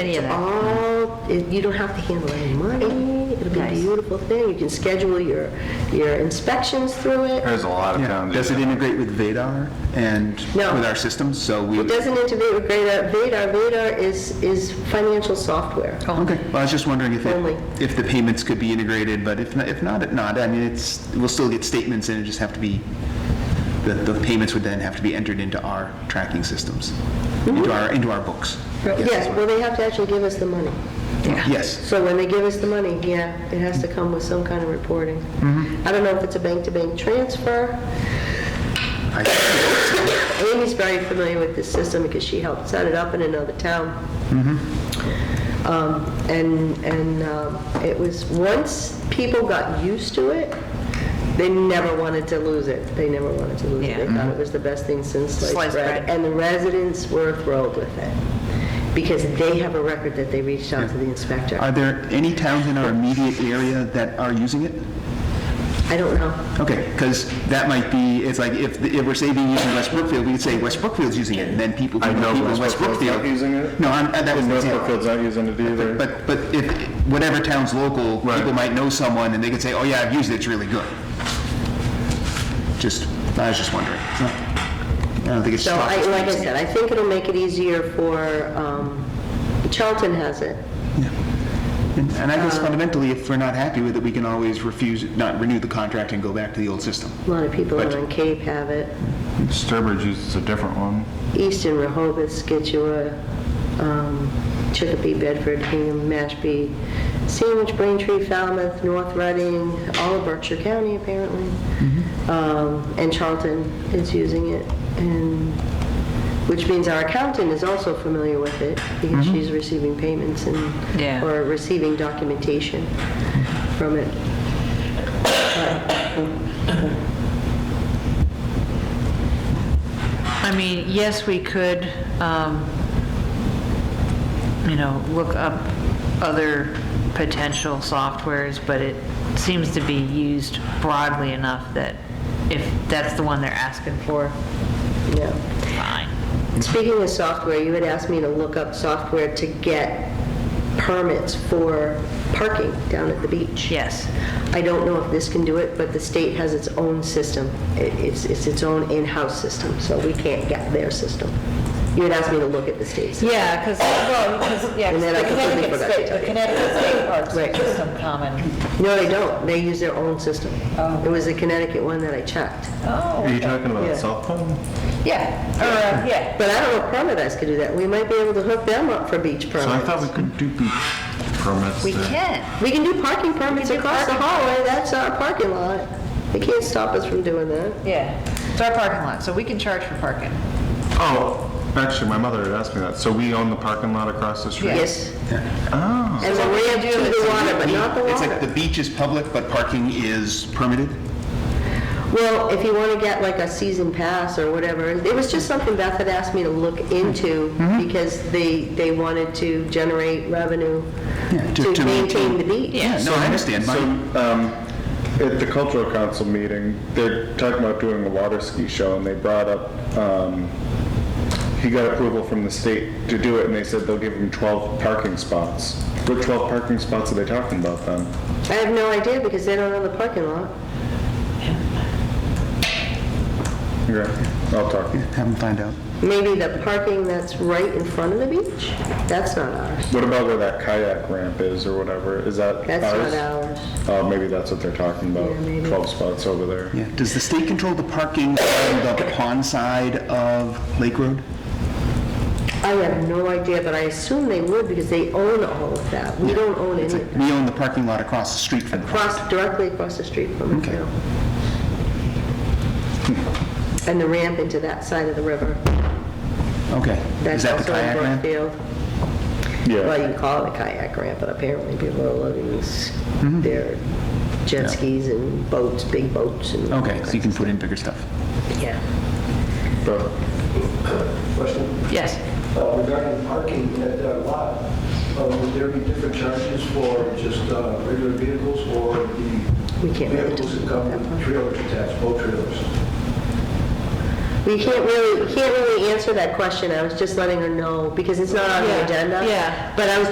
any of that. all, it- you don't have to handle any money, it'll be a Nice. beautiful thing, you can schedule your, your inspections through it. There's a lot of towns. Does it integrate with Vadar and No. with our systems? So we, It doesn't integrate with Vadar, Vadar, Vadar is, is financial software. okay, well, I was just wondering if, Only. it- if the payments could be integrated, but if, not- if not, it not. I mean, it's, we'll still get statements and it just have to be, the, the payments would then have to be entered into our tracking systems, into our, into our books. Yes, well, they have to actually give us the money. Yes, So when they give us the money, yeah, it has to come with some kind of reporting. I don't know if it's a bank-to-bank transfer. Amy's very familiar with this system because she helped set it up in another town. Mm-hmm. Um, And, and um, it was, once people got used to it, they never wanted to lose it. They never wanted to lose it. They Yeah. Mm-hmm. thought it was the best thing since sliced Sliced bread. bread. And the residents were thrilled with it because they have a record that they reached out to the inspector. Are there any towns in our immediate area that are using it? I don't know. Okay, because that might be, it's like, if, if we're saving using West Brookfield, we could say West Brookfield's using it, and then people, I know people in West West Brookfield's not Brookfield. using it. No, I'm, that was an North example. Brookfield's not using it either. But, but if, whatever town's local, people might know someone, and they could say, oh yeah, I've used it, it's really good. Just, I was just wondering. It's not- I don't think it's So just. I, like I said, I think it'll make it easier for, um, Charlton has it. And and I guess uh, fundamentally, if we're not happy with it, we can always refuse, not renew the contract and go back to the old system. A lot of people But- on Cape have it. Sturbridge uses a different one. Easton, Rehoboth, Skitua, um, Chicopee, Bedford, Hingham, Mashpee, Sandwich, Braintree, Falmouth, North Reading, all of Berkshire County apparently. Um, And Charlton is using it, and, which means our accountant is also familiar with it because she's receiving payments and, Yeah. or receiving documentation from it. I mean, yes, we could, um, you know, look up other potential softwares, but it seems to be used broadly enough that if that's the one they're asking for, Yeah. fine. Speaking of software, you had asked me to look up software to get permits for parking down at the beach. Yes. I don't know if this can do it, but the state has its own system. It- It's, it's its own in-house system, so we can't get their system. You had asked me to look at the state's. Yeah, because, well, because, yeah, 'cause And then I the completely Connecticut forgot to State, tell the you. Connecticut State Parks Right. is some common. No, they don't. They use their own system. Oh. It was the Connecticut one that I checked. Oh. Are you talking about Yeah. a cell phone? Yeah, or, uh, yeah. But I don't know if permit us could do that. We might be able to hook them up for beach So I thought we permits. could do beach permits. We there. can. We can do parking permits do across the parking. hallway. That's our parking lot. They can't stop us from doing that. Yeah, it's our parking lot, so we can charge for parking. Oh, actually, my mother had asked me that. So we own the parking lot across the street? Yes. Oh, And we're way up to the water, but not the It's like the water. beach is public, but parking is permitted? Well, if you want to get like a season pass or whatever, it was just something Beth had asked me to look into because they, they wanted to generate revenue Yeah, to- to to maintain maintain- the beach. Yeah, no, I understand. So, My- um, at the cultural council meeting, they're talking about doing a water ski show, and they brought up, um, he got approval from the state to do it, and they said they'll give him 12 parking spots. What 12 parking spots are they talking about then? I have no idea because they don't own the parking lot. Okay, I'll talk. Have them find out. Maybe the parking that's right in front of the beach, that's not ours. What about where that kayak ramp is or whatever? Is that ours? That's not ours. Oh, maybe that's what they're talking about, Yeah, maybe. 12 spots over there. Yeah, does the state control the parking on the pond side of Lake Road? I have no idea, but I assume they would because they own all of that. We don't own It's any, like, we own the parking lot across the street from the across, directly across the street from it Okay. now. And the ramp into that side of the river. Okay, is That's that the also in kayak ramp? Brookfield. Well, you Yeah, can call it a kayak ramp, but apparently people are loading these- their Mm-hmm. Yeah. jet skis and boats, big boats and. Okay, so you can put in bigger stuff. Yeah. but Question Yes. uh, regarding parking at that lot, uh, would there be different charges for just uh, regular vehicles or the We can't really vehicles that talk about come that with part. trailers attached, boat trailers? We can't really, can't really answer that question. I was just letting her know because it's not on Yeah, the agenda. yeah. But I was